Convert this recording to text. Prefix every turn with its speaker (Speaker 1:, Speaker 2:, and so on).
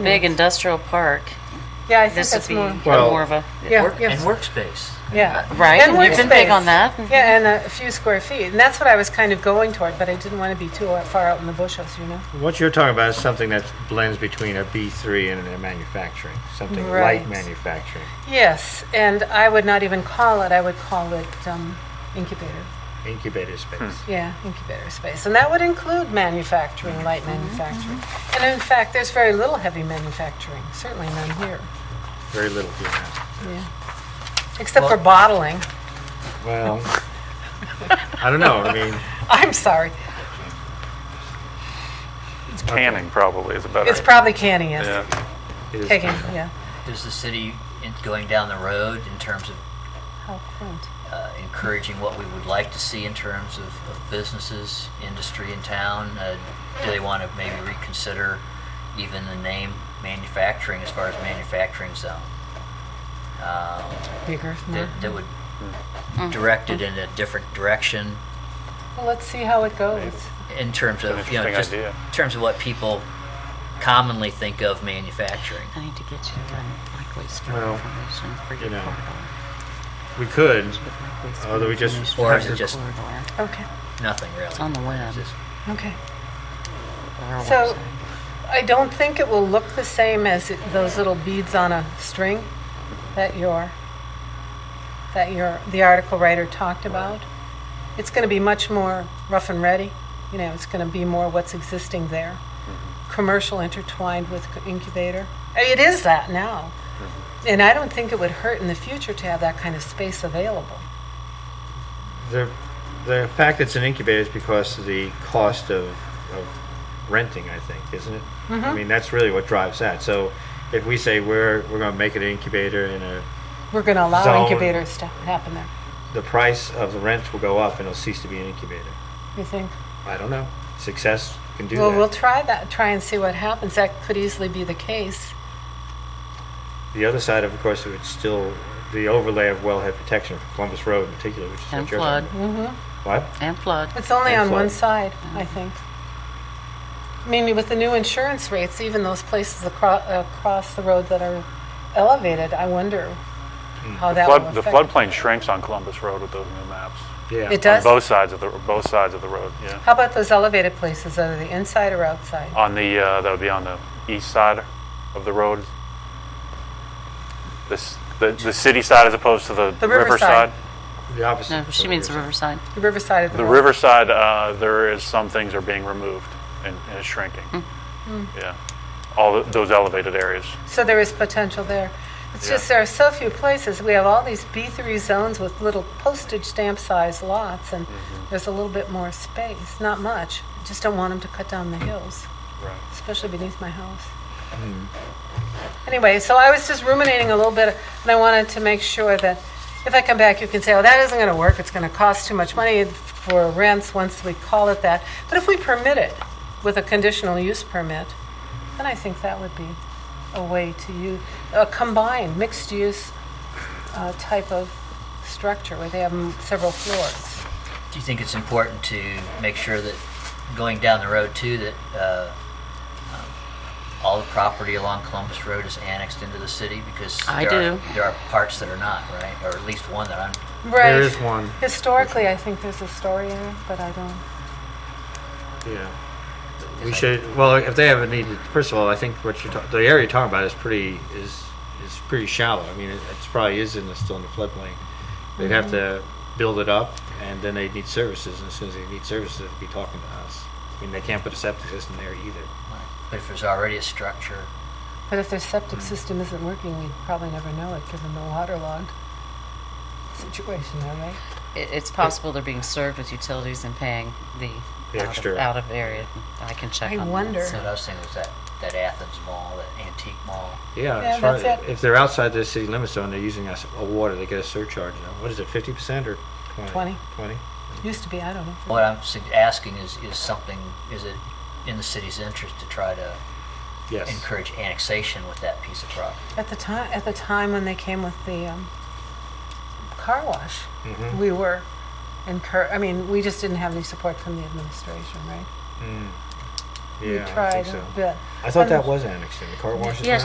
Speaker 1: A big industrial park,
Speaker 2: Yeah, I think
Speaker 1: this would
Speaker 2: that's
Speaker 1: be
Speaker 2: more,
Speaker 3: Well-
Speaker 1: more of a,
Speaker 2: Yeah,
Speaker 4: Work-
Speaker 2: yes.
Speaker 4: And workspace.
Speaker 2: yeah.
Speaker 1: Uh, right?
Speaker 2: And
Speaker 1: You've been big on
Speaker 2: workspace.
Speaker 1: that.
Speaker 2: Yeah, and a few square feet. And that's what I was kind of going toward, but I didn't want to be too out- far out in the bushes, you know?
Speaker 3: What you're talking about is something that blends between a B3 and a manufacturing, something
Speaker 2: Right.
Speaker 3: light manufacturing,
Speaker 2: Yes, and I would not even call it, I would call it um, incubator.
Speaker 3: incubator space.
Speaker 2: Yeah, incubator space. And that would include manufacturing, light
Speaker 1: Mm-hmm.
Speaker 2: manufacturing. And in fact, there's very little heavy manufacturing, certainly none here.
Speaker 3: Very little here. now.
Speaker 2: Yeah. Except for bottling.
Speaker 3: Well, I don't know. I mean,
Speaker 2: I'm sorry.
Speaker 5: It's canning probably is a better.
Speaker 2: It's probably canning, yes.
Speaker 5: Yeah.
Speaker 3: it is
Speaker 2: Taking, yeah.
Speaker 4: Is the city in- going down the road in terms of
Speaker 2: How quaint.
Speaker 4: uh, encouraging what we would like to see in terms of, of businesses, industry in town? Uh, do they want to maybe reconsider even the name manufacturing as far as manufacturing zone? Um,
Speaker 2: Bigger.
Speaker 4: that, that would
Speaker 2: Mm-hmm.
Speaker 1: mm.
Speaker 4: direct it in a different direction
Speaker 2: Well, let's see how it goes.
Speaker 4: in terms of
Speaker 5: That's an
Speaker 4: you know
Speaker 5: interesting
Speaker 4: just
Speaker 5: idea.
Speaker 4: in terms of what people commonly think of manufacturing.
Speaker 1: I need to get you um, like wastewater
Speaker 3: Well,
Speaker 1: information for
Speaker 3: you
Speaker 1: your
Speaker 3: know,
Speaker 1: corridor.
Speaker 3: We could.
Speaker 1: Oh,
Speaker 3: although we just-
Speaker 4: Or is it just-
Speaker 2: Okay,
Speaker 4: Nothing really.
Speaker 1: It's on the web.
Speaker 4: Just-
Speaker 2: okay.
Speaker 1: Or a
Speaker 2: So-
Speaker 1: website.
Speaker 2: I don't think it will look the same as it- those little beads on a string that your, that your, the article writer talked about. It's going to be much more rough and ready, you know, it's going to be more what's existing there. Commercial intertwined with incubator. I mean, It is that now.
Speaker 4: Mm-hmm.
Speaker 2: And I don't think it would hurt in the future to have that kind of space available.
Speaker 3: The, the fact it's an incubator is because of the cost of, of renting, I think, isn't it? I
Speaker 2: Mm-hmm.
Speaker 3: mean, that's really what drives that. So if we say we're, we're going to make it an incubator and uh, a,
Speaker 2: We're going to allow
Speaker 3: Zone.
Speaker 2: incubators to happen there,
Speaker 3: the price of the rent will go up and it'll cease to be an incubator.
Speaker 2: you think?
Speaker 3: I don't know. Success can do
Speaker 2: Well,
Speaker 3: that.
Speaker 2: we'll try that, try and see what happens. That could easily be the case.
Speaker 3: the other side of, of course, it's still the overlay of wellhead protection for Columbus Road in particular, which is
Speaker 1: And
Speaker 3: what you're
Speaker 1: flood.
Speaker 3: talking
Speaker 2: hmm
Speaker 3: about. What?
Speaker 1: And flood.
Speaker 2: It's only
Speaker 3: And
Speaker 2: on one side,
Speaker 3: flood.
Speaker 2: I think. I mean, with the new insurance rates, even those places across, across the road that are elevated, I wonder
Speaker 3: Mm.
Speaker 2: how Oh, that will
Speaker 5: Flood,
Speaker 2: affect.
Speaker 5: the floodplain shrinks on Columbus Road with those new maps.
Speaker 3: Yeah.
Speaker 2: It does?
Speaker 5: On both sides of the, both sides of the road, yeah.
Speaker 2: How about those elevated places, are they inside or outside?
Speaker 5: On the, uh, that would be on the east side of the road. This, the, the city side as opposed to the
Speaker 2: The
Speaker 5: river
Speaker 2: riverside.
Speaker 5: side.
Speaker 3: The opposite.
Speaker 1: No, she
Speaker 3: of
Speaker 1: means
Speaker 3: yours.
Speaker 1: Riverside.
Speaker 2: The riverside of the
Speaker 5: The
Speaker 2: road?
Speaker 5: riverside, uh, there is, some things are being removed and and is shrinking.
Speaker 2: Hmm.
Speaker 1: Hmm.
Speaker 5: Yeah. All th- those elevated areas.
Speaker 2: So there is potential there. It's
Speaker 5: Yeah.
Speaker 2: just there are so few places. We have all these B3 zones with little postage stamp sized lots, and there's a little bit more space. Not much. Just don't want them to cut down the hills,
Speaker 5: Right.
Speaker 2: especially beneath my house.
Speaker 3: Mm.
Speaker 2: Anyway, so I was just ruminating a little bit, and I wanted to make sure that if I come back, you can say, oh, that isn't going to work. It's going to cost too much money for rents once we call it that. But if we permit it with a conditional use permit, then I think that would be a way to use, a combined, mixed-use uh, type of structure where they have m- several floors.
Speaker 4: Do you think it's important to make sure that going down the road too, that uh, um, all the property along Columbus Road is annexed into the city? Because
Speaker 1: I
Speaker 4: there are-
Speaker 1: do.
Speaker 4: There are parts that are not, right? Or at least one that I'm,
Speaker 3: There is one.
Speaker 2: Historically, I think there's a story in it, but I don't,
Speaker 3: Yeah. We should, well, if they have a need, first of all, I think what you're, ta- the area you're talking about is pretty, is, is pretty shallow. I mean, it it's probably is in the, still in the floodplain. They'd have to
Speaker 1: Mm-hmm.
Speaker 3: build it up, and then they'd need services, and as soon as they need services, they'd be talking to us. I mean, they can't put a septic system there either.
Speaker 4: but if there's already a structure,
Speaker 2: but if their septic system isn't working, we'd probably never know it, given the waterlogged situation there, right?
Speaker 1: It, it's possible they're being served with utilities and paying the,
Speaker 3: The
Speaker 1: out,
Speaker 3: extra.
Speaker 1: Of, out of area. I can check
Speaker 2: I
Speaker 1: on that,
Speaker 2: wonder.
Speaker 4: what
Speaker 1: so-
Speaker 4: I was thinking was that, that Athens Mall, that antique mall.
Speaker 3: Yeah,
Speaker 2: Yeah,
Speaker 3: as far-
Speaker 2: that's it.
Speaker 3: if they're outside the city limits zone, they're using us a water, they get a surcharge. Now, What is it, fifty percent or twenty?
Speaker 2: Twenty.
Speaker 3: Twenty?
Speaker 2: Used to be, I don't know.
Speaker 4: What I'm sug- asking is, is something, is it in the city's interest to try to
Speaker 3: Yes.
Speaker 4: encourage annexation with that piece of property?
Speaker 2: At the time, at the time when they came with the um, car wash,
Speaker 3: Mhm.
Speaker 2: we were incur. I mean, we just didn't have any support from the administration, right?
Speaker 3: Mm.
Speaker 2: we
Speaker 3: Yeah, I
Speaker 2: tried
Speaker 3: think
Speaker 2: a
Speaker 3: so.
Speaker 2: bit.
Speaker 3: I thought
Speaker 2: And-
Speaker 3: that was annexed in, the car wash is
Speaker 1: Yes,
Speaker 3: not?